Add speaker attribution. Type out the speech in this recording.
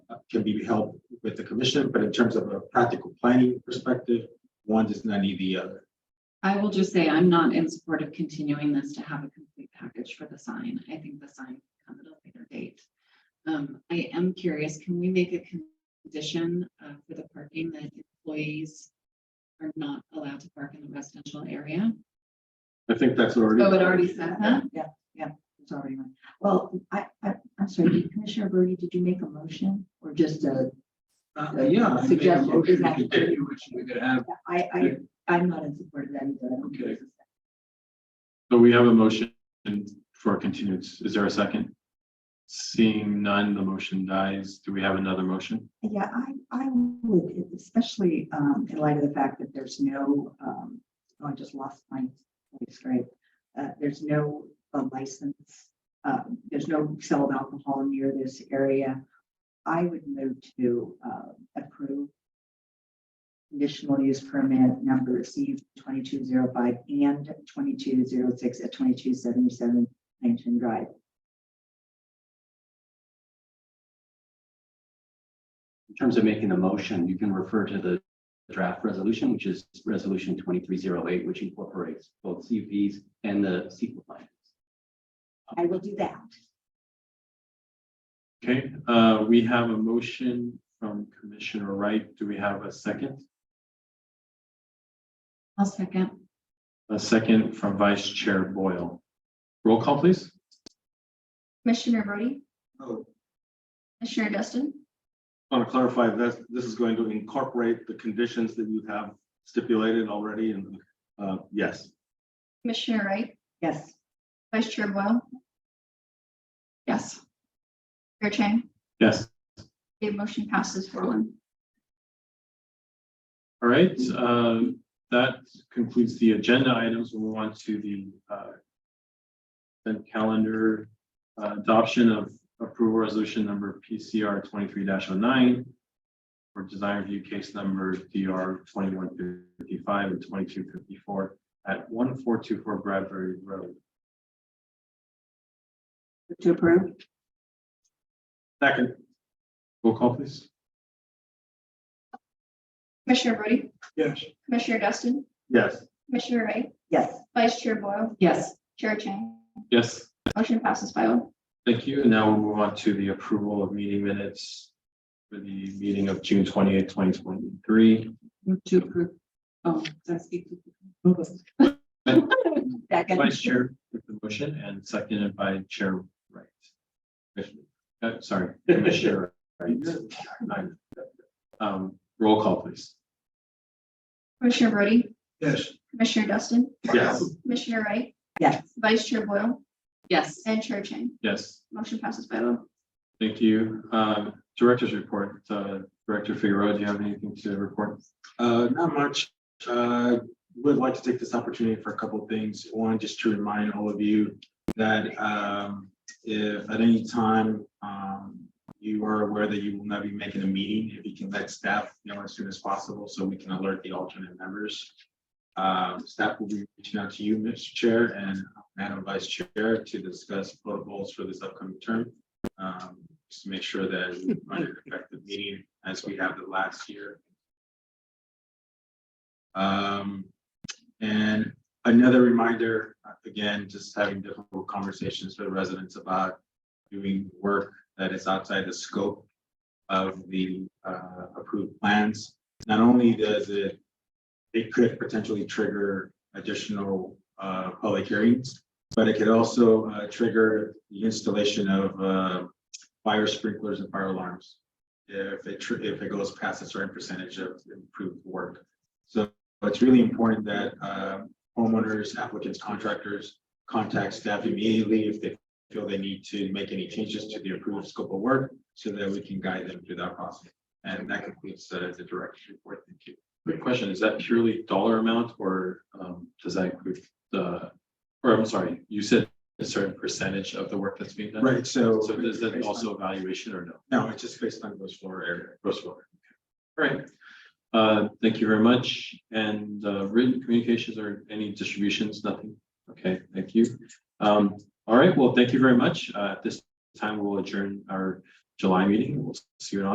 Speaker 1: uh,
Speaker 2: can be held with the commission, but in terms of a practical planning perspective, one does not need the other.
Speaker 3: I will just say I'm not in support of continuing this to have a complete package for the sign. I think the sign can come at a later date. Um, I am curious, can we make a condition uh, for the parking that employees are not allowed to park in the residential area?
Speaker 2: I think that's already.
Speaker 3: Oh, it already said that?
Speaker 4: Yeah, yeah, it's already on. Well, I, I, I'm sorry, Commissioner Brody, did you make a motion or just a?
Speaker 5: Uh, yeah. I think a
Speaker 4: Suggestion,
Speaker 5: motion to
Speaker 4: exactly.
Speaker 5: continue, which we could have,
Speaker 4: I, I, I'm not in support of that either. I don't think it's a second.
Speaker 1: So we have a motion for continuance. Is there a second? Seeing none, the motion dies. Do we have another motion?
Speaker 4: Yeah, I, I would, especially um, in light of the fact that there's no, um, oh, I just lost my, it's great. Uh, There's no uh, license, uh, there's no sale of alcohol near this area. I would move to uh, approve conditional use permit number C twenty-two zero five and twenty-two zero six at twenty-two seventy-seven Huntington Drive.
Speaker 6: In terms of making the motion, you can refer to the draft resolution, which is resolution twenty-three zero eight, which incorporates both CUPs and the sequel plan.
Speaker 4: I will do that.
Speaker 1: Okay, uh, we have a motion from Commissioner Wright. Do we have a second?
Speaker 3: I'll second.
Speaker 1: A second from Vice Chair Boyle. Roll call, please.
Speaker 7: Commissioner Brody,
Speaker 2: Oh,
Speaker 7: Commissioner Dustin,
Speaker 2: Want to clarify that this is going to incorporate the conditions that you have stipulated already and, uh, yes.
Speaker 7: Commissioner Wright,
Speaker 4: Yes.
Speaker 7: Vice Chair Boyle,
Speaker 3: Yes.
Speaker 7: Chair Chang.
Speaker 1: Yes.
Speaker 7: The motion passes four one.
Speaker 1: All right, uh, that concludes the agenda items. We'll move on to the uh, consent calendar uh, adoption of approval resolution number PCR twenty-three 9 for design review case number DR twenty-one fifty-five and twenty-two fifty-four at one four two four Bradbury Road.
Speaker 4: To approve?
Speaker 1: Second. Roll call, please.
Speaker 7: Commissioner Brody,
Speaker 5: yes,
Speaker 7: Commissioner Dustin,
Speaker 2: Yes,
Speaker 7: Commissioner Wright,
Speaker 4: Yes.
Speaker 7: Vice Chair Boyle,
Speaker 3: Yes.
Speaker 7: Chair Chang.
Speaker 1: Yes.
Speaker 7: Motion passes five oh.
Speaker 1: Thank you. And now we'll move on to the approval of meeting minutes for the meeting of June twenty-eighth, twenty twenty-three.
Speaker 3: Move To approve. Oh, did I speak? to-
Speaker 4: Second.
Speaker 1: Vice Chair with the motion and seconded by Chair Wright. Commissioner- uh, sorry, Commissioner Wright. Nine. Um, roll call, please.
Speaker 7: Commissioner Brody,
Speaker 5: yes.
Speaker 7: Commissioner Dustin,
Speaker 2: yes.
Speaker 7: Commissioner Wright,
Speaker 4: Yes.
Speaker 7: Vice Chair Boyle,
Speaker 3: Yes.
Speaker 7: and Chair Chang.
Speaker 1: Yes,
Speaker 7: Motion passes five oh.
Speaker 1: thank you. Um, director's report, uh, Director Figueroa, do you have anything to report?
Speaker 2: Uh, not much. Uh, would like to take this opportunity for a couple of things. One, just to remind all of you that, um, if at any time, um, you are aware that you will not be making a meeting, if you can let staff know as soon as possible so we can alert the alternate members. Um, staff will be reaching out to you, Mr. Chair and Madam Vice Chair to discuss protocols for this upcoming term. Um, just to make sure that we run an effective meeting as we have the last year. Um, and another reminder, again, just having difficult conversations with residents about doing work that is outside the scope of the uh, approved plans. Not only does it, it could potentially trigger additional uh, public hearings, but it could also uh, trigger the installation of uh, fire sprinklers and fire alarms if it, tr- if it goes past a certain percentage of improved work. So it's really important that uh, homeowners, applicants, contractors contact staff immediately if they feel they need to make any changes to the approved scope of work so that we can guide them through that process. And that concludes uh, the director's report. Thank you.
Speaker 1: Quick question, is that purely dollar amount or, um, does that include the, or I'm sorry, you said a certain percentage of the work that's being done?
Speaker 2: Right, so.
Speaker 1: So is that also evaluation or no?
Speaker 2: No, it's just based on gross floor area.
Speaker 1: Gross floor. All right. Uh, Thank you very much. And uh, written communications or any distributions, nothing? Okay, thank you. Um, All right, well, thank you very much. Uh, At this time, we'll adjourn our July meeting. We'll see you in August.